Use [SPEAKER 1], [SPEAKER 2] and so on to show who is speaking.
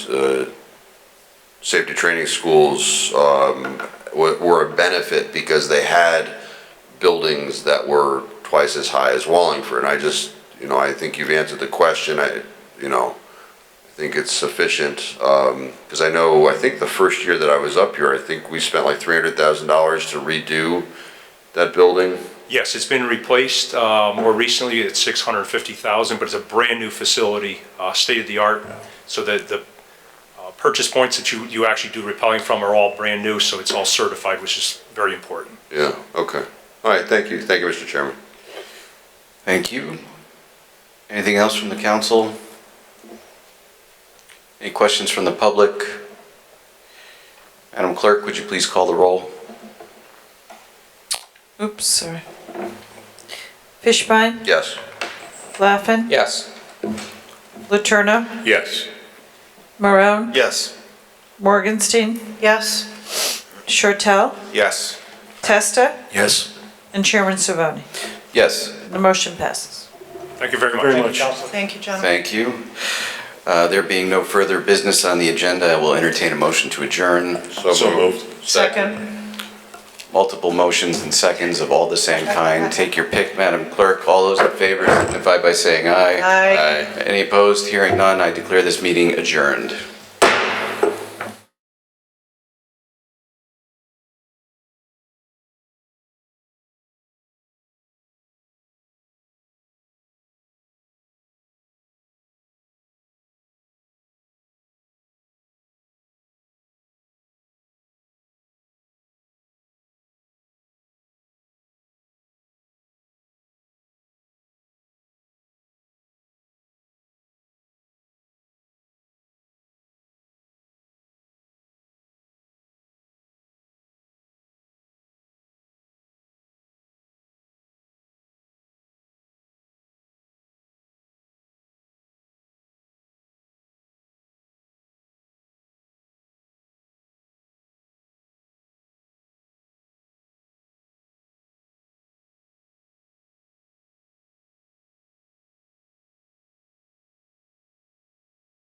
[SPEAKER 1] uh, safety training schools um, were were a benefit because they had buildings that were twice as high as Wallingford. And I just, you know, I think you've answered the question. I, you know, I think it's sufficient. Because I know, I think the first year that I was up here, I think we spent like $300,000 to redo that building.
[SPEAKER 2] Yes, it's been replaced uh, more recently, it's 650,000, but it's a brand-new facility, uh, state-of-the-art, so that the uh, purchase points that you, you actually do repelling from are all brand-new, so it's all certified, which is very important.
[SPEAKER 1] Yeah, okay. All right, thank you. Thank you, Mr. Chairman.
[SPEAKER 3] Thank you. Anything else from the council? Any questions from the public? Madam Clerk, would you please call the roll?
[SPEAKER 4] Oops, sorry. Fishbein,
[SPEAKER 1] Yes.
[SPEAKER 4] Laffin,
[SPEAKER 3] Yes.
[SPEAKER 4] Laterna,
[SPEAKER 2] Yes.
[SPEAKER 4] Marone,
[SPEAKER 3] Yes.
[SPEAKER 4] Morgenstein. Yes. Shortell,
[SPEAKER 3] Yes.
[SPEAKER 4] Testa,
[SPEAKER 3] Yes.
[SPEAKER 4] and Chairman Savoni.
[SPEAKER 3] Yes,
[SPEAKER 4] The motion passes.
[SPEAKER 2] Thank you very much. Very much.
[SPEAKER 4] Thank you, gentlemen.
[SPEAKER 3] thank you. Uh, There being no further business on the agenda, I will entertain a motion to adjourn.
[SPEAKER 1] So moved.
[SPEAKER 3] Multiple motions and seconds of all the same kind. Take your pick, Madam Clerk. All those in favor signify by saying aye.
[SPEAKER 4] Aye.
[SPEAKER 3] Any opposed? Hearing none, I declare this meeting adjourned.